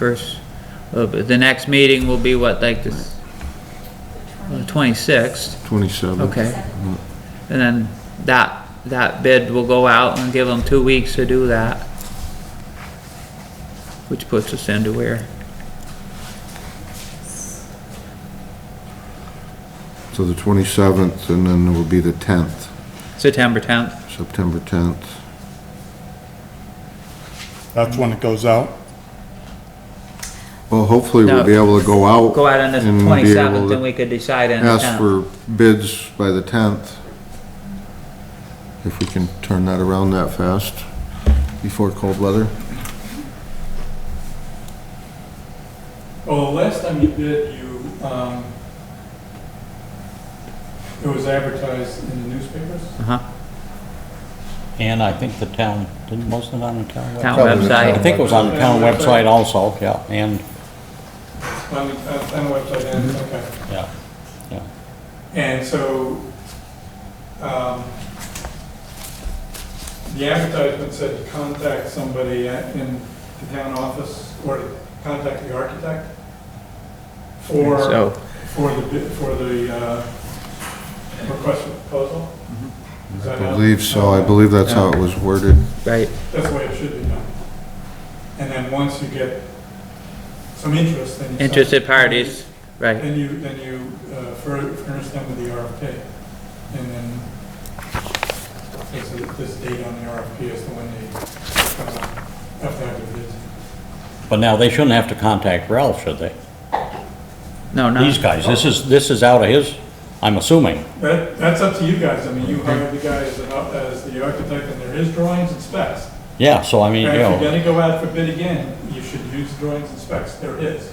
first, uh, but the next meeting will be what, like the twenty-sixth, 27. okay? And then that, that bid will go out and give them two weeks to do that. Which puts us into where, So the 27th, and then it will be the 10th, September tenth, September 10th. That's when it goes out? Well, hopefully we'll be able to go out. go out on the and be able twenty-seventh to and we could decide on the Ask tenth. for bids by the 10th. If we can turn that around that fast before cold weather. Well, Oh, the last time you did, you, um, it was advertised in the newspapers? Uh-huh, And I think the town, didn't most of it on the town town website? Probably the I website, think it was on the town website also, yeah, and, On the, uh, on the website, and, Mm-hmm. okay. yeah, yeah. And so, um, the advertisement said to contact somebody at- in the town office, or to contact the architect for, so, for the, bid- for the, uh, request for proposal? Is I that how- believe so, I believe that's how it was worded. right, That's the way it should be done. And then once you get some interest, then you. send- interested parties, right. Then you, then you uh, fur- furnish them with the RFP. And then it's a- this date on the RFP is the one they uh, have to have the bids. But now, they shouldn't have to contact Ralph, should they? No, no. These guys, this is, this is out of his, I'm assuming. That, that's up to you guys. I mean, you hire the guy as, an ar- as the architect and there is drawings and specs. Yeah, so I mean, you And if you're gonna know, go out for bid again, you should use drawings and specs. There is.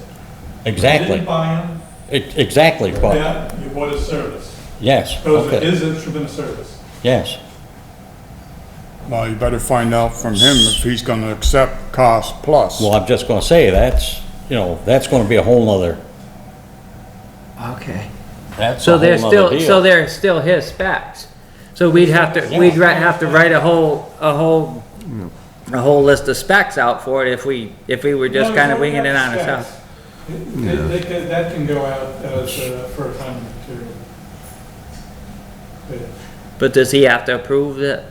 You exactly, didn't buy them, Ex- exactly, but, yeah, you bought a service. yes, Those are okay, his instrument of service. yes. Well, you better find out from him if he's gonna accept cost plus. Well, I'm just gonna say, that's, you know, that's gonna be a whole nother, Okay. that's So a they're whole nother still, so deal. they're still his specs. So we'd have to, we'd ri- have to write a whole, a whole, a whole list of specs out for it if we, if we were just No, kind of no, winging it that's on ourselves. specs. They- they can- That can go out as, uh, for a time material. But But does he have to approve it?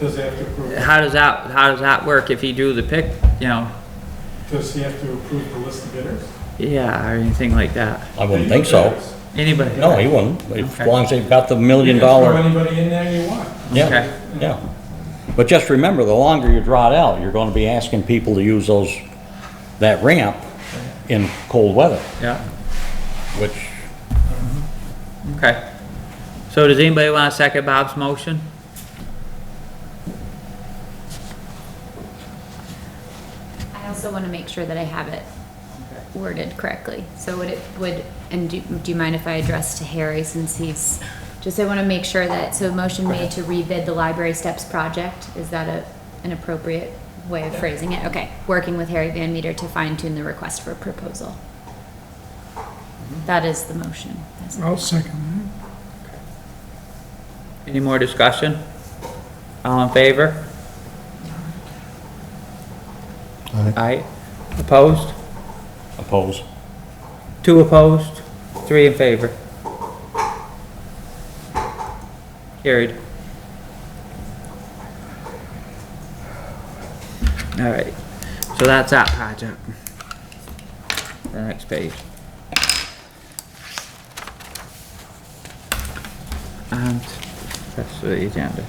Does he have to approve, How does that, how does that work if he drew the pic, you know, does he have to approve the list of bidders? yeah, or anything like that? I wouldn't think so. Bidders. Anybody? No, he wouldn't, as Okay. long as they've got the You million can dollar. Throw anybody in there you want. Okay. Yeah, yeah. But just remember, the longer you draw it out, you're gonna be asking people to use those, that ramp in cold weather, Yeah, which, okay. So does anybody want to second Bob's motion? I also want to make sure that I have it worded correctly. So would it, would, and do, do you mind if I address to Harry since he's, just I want to make sure that, so motion made to rebid the library steps project, is that a, an appropriate way of phrasing it? Okay, working with Harry Van Meter to fine tune the request for proposal. That is the motion. I'll second Any more discussion? All in favor? Aye. Aye. Opposed? oppose. Two opposed, three in favor. Carried. All right, so that's that project. The next page. And that's the agenda.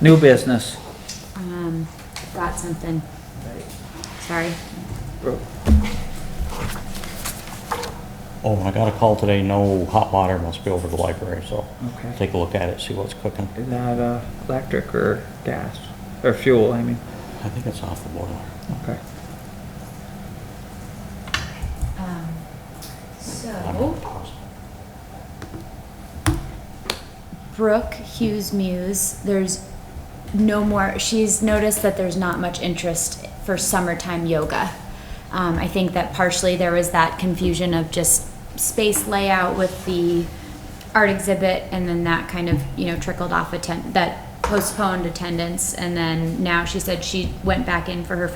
New business. Um, got something. Sorry. Oh, I got a call today, no hot water must be over the library, so Okay. take a look at it, see what's cooking. Is that uh, electric or gas? Or fuel, I mean, I think it's off the boiler. okay. Um, I'm So. not positive. Brooke Hughes Muse, there's no more, she's noticed that there's not much interest for summertime yoga. Um, I think that partially there was that confusion of just space layout with the art exhibit and then that kind of, you know, trickled off attend, that postponed attendance. And then now she said she went back in for her